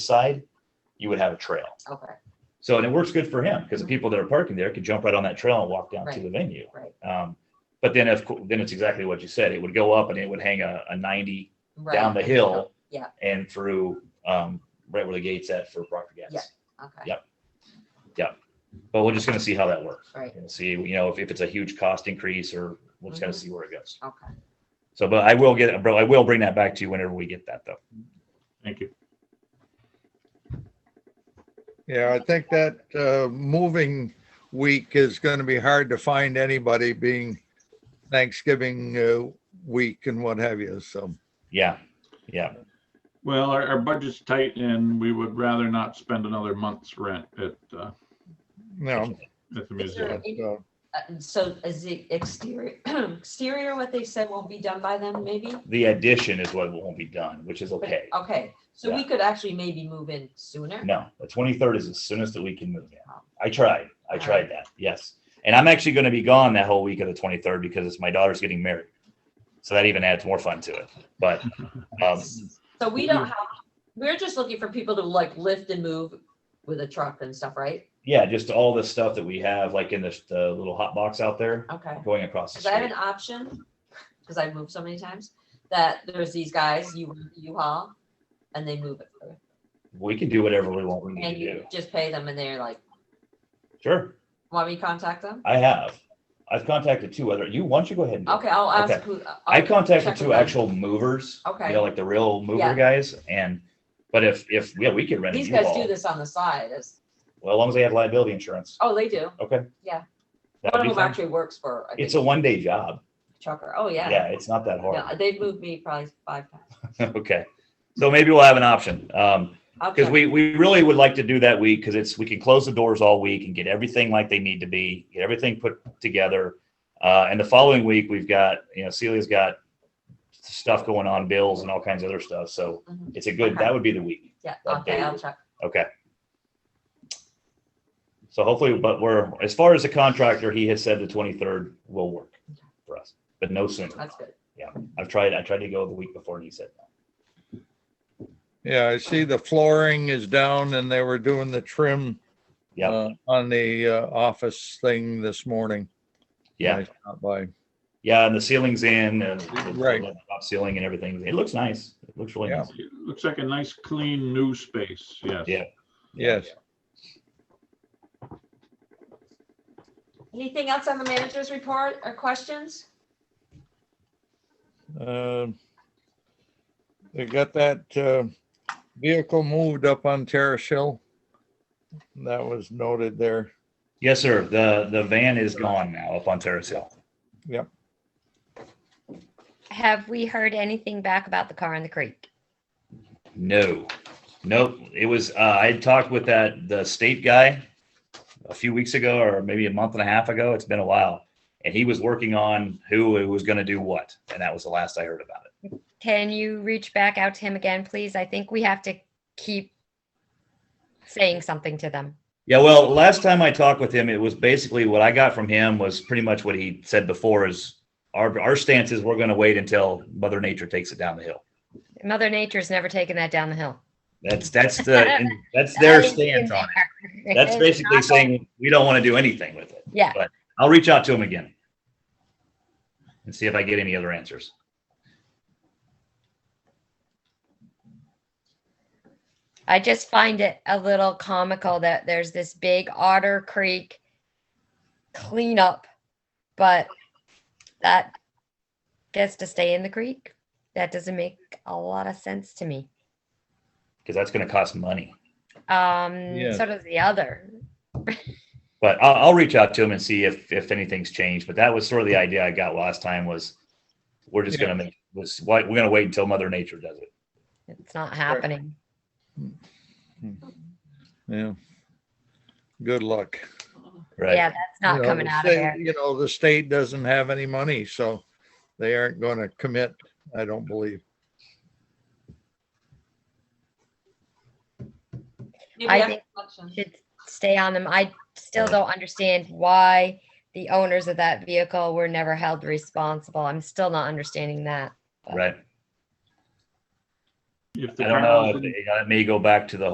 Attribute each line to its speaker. Speaker 1: side, you would have a trail.
Speaker 2: Okay,
Speaker 1: So, and it works good for him because the people that are parking there could jump right on that trail and walk down to
Speaker 2: Mm-hmm. Right.
Speaker 1: the venue.
Speaker 2: right,
Speaker 1: Um, but then if, then it's exactly what you said, it would go up and it would hang a, a ninety
Speaker 2: right.
Speaker 1: down the hill.
Speaker 2: Yeah.
Speaker 1: And through, um, right where the gate's at for Proctor
Speaker 2: Yeah.
Speaker 1: Gas.
Speaker 2: Okay,
Speaker 1: Yeah. But we're just gonna see how that works.
Speaker 2: Right.
Speaker 1: And see, you know, if, if it's a huge cost increase or we'll just gotta
Speaker 2: Mhm.
Speaker 1: see where it goes.
Speaker 2: okay.
Speaker 1: So, but I will get, bro, I will bring that back to you whenever we get that though.
Speaker 3: Thank you.
Speaker 4: Yeah, I think that uh, moving week is going to be hard to find anybody being Thanksgiving uh, week and what have you. So,
Speaker 1: Yeah. Yeah.
Speaker 3: Well, our, our budget's tight and we would rather not spend another month's rent at, uh,
Speaker 4: no.
Speaker 3: at the
Speaker 2: Is there
Speaker 3: museum.
Speaker 4: but, uh,
Speaker 2: Uh, So is the exterior, exterior what they said won't be done by then, maybe?
Speaker 1: The addition is what won't be done, which is okay.
Speaker 2: Okay, so we could actually maybe move in sooner?
Speaker 1: No, the twenty-third is as soon as that we can move in.
Speaker 2: Oh.
Speaker 1: I tried, I
Speaker 2: Alright.
Speaker 1: tried that, yes. And I'm actually gonna be gone that whole week of the twenty-third because it's my daughter's getting married. So that even adds more fun to it, but, um,
Speaker 2: So we don't have, we're just looking for people to like lift and move with a truck and stuff, right?
Speaker 1: yeah, just all the stuff that we have, like in the, the little hot box out there
Speaker 2: Okay.
Speaker 1: going across the
Speaker 2: Cause I have
Speaker 1: street.
Speaker 2: an option, cause I've moved so many times, that there's these guys, you, you haul, and they move it. for you.
Speaker 1: We can do whatever we want, we
Speaker 2: And
Speaker 1: need to do.
Speaker 2: you just pay them and they're like,
Speaker 1: Sure,
Speaker 2: want me to contact them?
Speaker 1: I have. I've contacted two other, you, why don't you go ahead and? do it?
Speaker 2: Okay, I'll ask
Speaker 1: Okay.
Speaker 2: who. uh, oh,
Speaker 1: I
Speaker 2: I'll
Speaker 1: contacted
Speaker 2: check
Speaker 1: two
Speaker 2: with them.
Speaker 1: actual movers.
Speaker 2: Okay.
Speaker 1: You know, like the real mover
Speaker 2: Yeah.
Speaker 1: guys and, but if, if, yeah, we could rent a
Speaker 2: These guys do
Speaker 1: U-Haul.
Speaker 2: this on the side as,
Speaker 1: Well, as long as they have liability insurance.
Speaker 2: oh, they do.
Speaker 1: Okay.
Speaker 2: Yeah.
Speaker 1: That would
Speaker 2: One of
Speaker 1: be
Speaker 2: them
Speaker 1: fun.
Speaker 2: actually works for, I
Speaker 1: It's a
Speaker 2: think,
Speaker 1: one day job.
Speaker 2: trucker. Oh, yeah.
Speaker 1: Yeah, it's not that hard.
Speaker 2: Yeah, they've moved me probably five times.
Speaker 1: Okay. So maybe we'll have an option. Um,
Speaker 2: I'll
Speaker 1: cause
Speaker 2: check.
Speaker 1: we, we really would like to do that week because it's, we can close the doors all week and get everything like they need to be, get everything put together. Uh, and the following week, we've got, you know, Celia's got stuff going on, bills and all kinds of other stuff. So
Speaker 2: Mhm.
Speaker 1: it's a good,
Speaker 2: Okay.
Speaker 1: that would be the week.
Speaker 2: Yeah,
Speaker 1: Okay.
Speaker 2: okay, I'll check.
Speaker 1: Okay. So hopefully, but we're, as far as the contractor, he has said the twenty-third will work for us, but no sooner.
Speaker 2: That's good.
Speaker 1: I've tried, I tried to go the week before and he said no.
Speaker 4: Yeah, I see the flooring is down and they were doing the trim
Speaker 1: Yep.
Speaker 4: uh, on the uh, office thing this morning.
Speaker 1: Yeah,
Speaker 4: I stopped by.
Speaker 1: yeah, and the ceiling's in and the-
Speaker 4: Right.
Speaker 1: the top ceiling and everything. It looks nice. It looks really
Speaker 4: Yeah.
Speaker 1: nice.
Speaker 3: It Looks like a nice, clean new space, yes.
Speaker 1: Yeah.
Speaker 4: Yes.
Speaker 2: Anything else on the manager's report or questions?
Speaker 4: Um, They got that uh, vehicle moved up on Terrace Hill. That was noted there.
Speaker 1: Yes, sir. The, the van is gone now up on Terrace Hill.
Speaker 5: Have we heard anything back about the car in the creek?
Speaker 1: No, nope. It was, uh, I had talked with that, the state guy a few weeks ago, or maybe a month and a half ago. It's been a while. And he was working on who it was gonna do what. And that was the last I heard about it.
Speaker 5: Can you reach back out to him again, please? I think we have to keep saying something to them.
Speaker 1: Yeah, well, last time I talked with him, it was basically what I got from him was pretty much what he said before is our, our stance is we're gonna wait until Mother Nature takes it down the hill.
Speaker 5: Mother Nature's never taken that down the hill.
Speaker 1: That's, that's the, and that's their stance on it. That's basically saying we don't want to do anything with it.
Speaker 5: Yeah,
Speaker 1: I'll reach out to him again and see if I get any other answers.
Speaker 5: I just find it a little comical that there's this big Otter Creek cleanup, but that gets to stay in the creek. That doesn't make a lot of sense to me.
Speaker 1: because that's going to cost money.
Speaker 5: Um,
Speaker 4: Yeah.
Speaker 5: so does the other.
Speaker 1: But I'll, I'll reach out to him and see if if anything's changed. But that was sort of the idea I got last time was we're just going to make was why we're going to wait until Mother Nature does it.
Speaker 5: It's not happening.
Speaker 4: Yeah. Good luck.
Speaker 1: Right.
Speaker 5: Yeah, that's
Speaker 4: You
Speaker 5: not
Speaker 4: know,
Speaker 5: coming
Speaker 4: the
Speaker 5: out of
Speaker 4: state-
Speaker 5: there.
Speaker 4: You know, the state doesn't have any money, so they aren't going to commit, I don't believe.
Speaker 2: Maybe
Speaker 5: I
Speaker 2: after
Speaker 5: think-
Speaker 2: elections.
Speaker 5: Should stay on them. I still don't understand why the owners of that vehicle were never held responsible. I'm still not understanding that.
Speaker 1: Right.
Speaker 3: If the
Speaker 1: I don't know.
Speaker 3: car
Speaker 1: If
Speaker 3: was in
Speaker 1: it, may go back to the